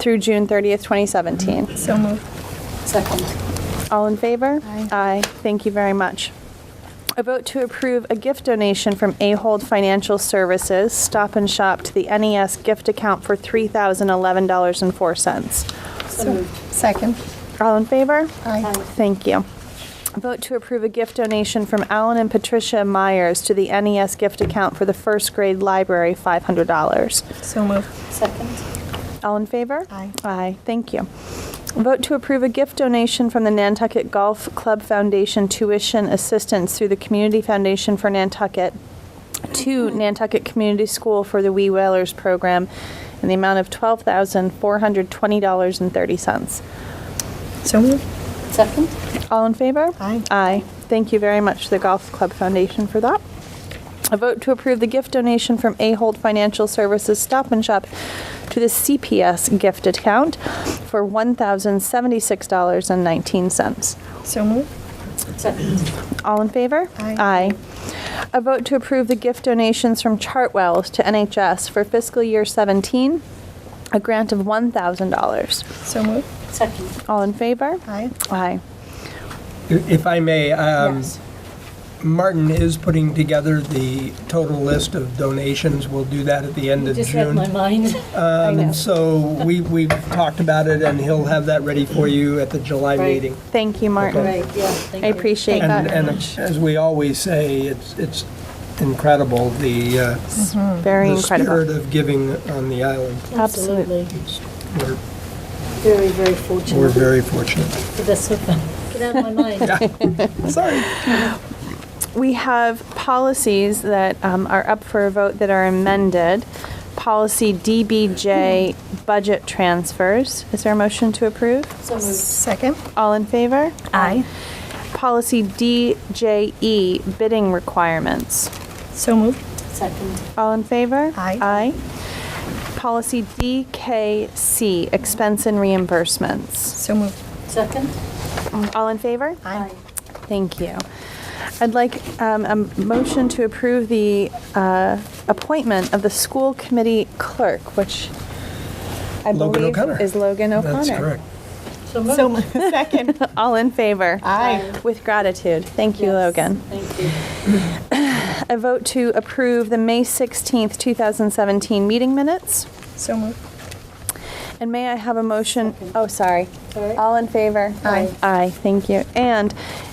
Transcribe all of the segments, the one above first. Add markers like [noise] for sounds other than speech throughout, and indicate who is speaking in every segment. Speaker 1: through June 30th, 2017.
Speaker 2: So moved.
Speaker 3: Second.
Speaker 1: All in favor?
Speaker 2: Aye.
Speaker 1: Thank you very much. A vote to approve a gift donation from Ahold Financial Services Stop and Shop to the NES gift account for $3,011.04.
Speaker 2: So Second.
Speaker 1: All in favor?
Speaker 2: Aye.
Speaker 1: Thank you. A Vote to approve a gift donation from Alan and Patricia Myers to the NES gift account for the first grade library, $500.
Speaker 2: So moved.
Speaker 3: Second.
Speaker 1: All in favor?
Speaker 2: Aye.
Speaker 1: Aye, thank you. Vote to approve a gift donation from the Nantucket Golf Club Foundation tuition assistance through the Community Foundation for Nantucket to Nantucket Community School for the Wee Whalers program in the amount of $12,420.30.
Speaker 2: So moved.
Speaker 3: Second.
Speaker 1: All in favor?
Speaker 2: Aye.
Speaker 1: Aye. Thank you very much to the Golf Club Foundation for that. A vote to approve the gift donation from Ahold Financial Services Stop and Shop to the CPS gift account for $1,076.19.
Speaker 2: So moved.
Speaker 3: Second.
Speaker 1: All in favor?
Speaker 2: Aye.
Speaker 1: Aye. A vote to approve the gift donations from Chartwells to NHS for fiscal year 17, a grant of $1,000.
Speaker 2: So moved.
Speaker 3: Second.
Speaker 1: All in favor?
Speaker 2: Aye.
Speaker 1: Aye.
Speaker 4: If I may, um,
Speaker 2: Yes.
Speaker 4: Martin is putting together the total list of donations. We'll do that at the end of
Speaker 3: Just read my
Speaker 4: June. [laughs]
Speaker 3: mind.
Speaker 1: I know.
Speaker 4: Um, So we, we've talked about it, and he'll have that ready for you at the July
Speaker 3: Right.
Speaker 4: meeting.
Speaker 1: Thank you, Martin.
Speaker 3: Right, yeah, thank
Speaker 1: I
Speaker 3: you.
Speaker 1: appreciate
Speaker 2: Thank
Speaker 1: that.
Speaker 4: And, and as we always say, it's, it's incredible, the, uh,
Speaker 1: Very
Speaker 4: the
Speaker 1: incredible.
Speaker 4: spirit of giving on the island.
Speaker 1: Absolutely.
Speaker 3: Absolutely.
Speaker 4: It's- We're,
Speaker 3: Very, very
Speaker 4: we're
Speaker 3: fortunate.
Speaker 4: very fortunate.
Speaker 3: That's so fun. Get out of my
Speaker 4: [laughs]
Speaker 3: mind.
Speaker 4: Sorry.
Speaker 1: We have policies that um, are up for a vote that are amended. Policy DBJ, budget transfers. Is there a motion to approve?
Speaker 3: So moved.
Speaker 2: Second.
Speaker 1: All in favor?
Speaker 2: Aye.
Speaker 1: Policy DJE, bidding requirements.
Speaker 2: So moved.
Speaker 3: Second.
Speaker 1: All in favor?
Speaker 2: Aye.
Speaker 1: Aye. Policy DKC, expense and reimbursements.
Speaker 2: So moved.
Speaker 3: Second.
Speaker 2: Oh.
Speaker 1: All in favor?
Speaker 2: Aye.
Speaker 1: Thank you. I'd like um, a motion to approve the uh, appointment of the school committee clerk, which I
Speaker 4: Logan
Speaker 1: believe
Speaker 4: O'Connor.
Speaker 1: is Logan O'Connor.
Speaker 4: That's correct.
Speaker 3: So
Speaker 2: So
Speaker 3: moved.
Speaker 2: moved. Second.
Speaker 1: [laughs] All in favor?
Speaker 2: Aye.
Speaker 1: With gratitude. Thank you,
Speaker 3: Yes,
Speaker 1: Logan.
Speaker 3: Thank you.
Speaker 1: A vote to approve the May 16th, 2017 meeting minutes.
Speaker 2: So moved.
Speaker 1: And may I have a motion?
Speaker 3: Second.
Speaker 1: Oh, sorry.
Speaker 3: Sorry.
Speaker 1: All in favor?
Speaker 2: Aye.
Speaker 1: Aye, thank you. And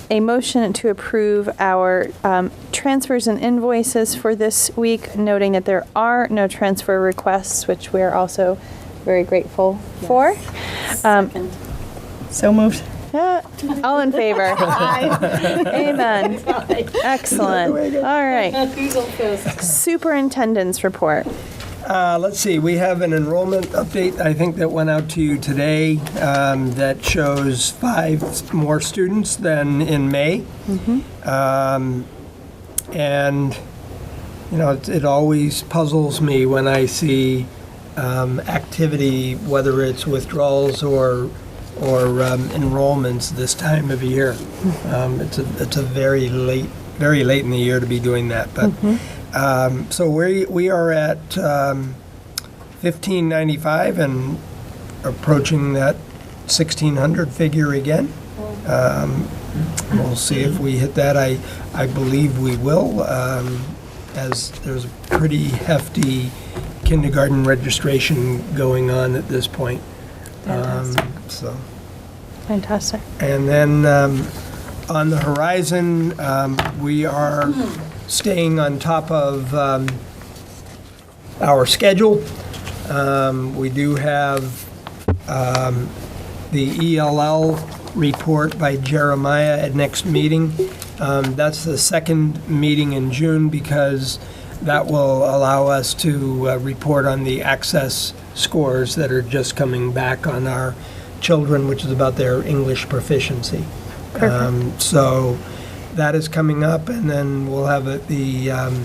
Speaker 1: a motion to approve our um, transfers and invoices for this week, noting that there are no transfer requests, which we're also very grateful for. Um,
Speaker 3: Second.
Speaker 2: So moved.
Speaker 1: yeah, [laughs] All in favor?
Speaker 2: Aye.
Speaker 1: Amen.
Speaker 3: Aye.
Speaker 1: Excellent. All right.
Speaker 3: [laughs] Who's on first?
Speaker 1: Superintendent's report.
Speaker 4: Uh, Let's see, we have an enrollment update, I think, that went out to you today um, that shows five more students than in May. Um, And, you know, it- it always puzzles me when I see um, activity, whether it's withdrawals or, or um, enrollments this time of year. Um, It's a, it's a very late, very late in the year to be doing that, but um, so we we are at um, fifteen ninety five and approaching that sixteen hundred figure again. Um, we'll see if we hit that. I I believe we will, um, as there's a pretty hefty kindergarten registration going on at this point. Um, so.
Speaker 1: Fantastic.
Speaker 4: And then um, on the horizon, um, we are staying on top of um, our schedule. Um, We do have um, the ELL report by Jeremiah at next meeting. Um, That's the second meeting in June because that will allow us to uh, report on the access scores that are just coming back on our children, which is about their English proficiency. Um, So that is coming up, and then we'll have uh, the um,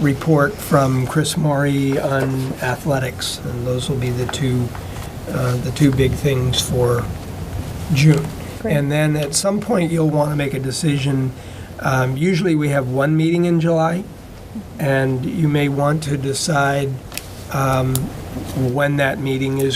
Speaker 4: report from Chris Maury on athletics, and those will be the two, uh, the two big things for June.
Speaker 1: Great.
Speaker 4: And then at some point, you'll want to make a decision. Um, Usually, we have one meeting in July, and you may want to decide um, when that meeting is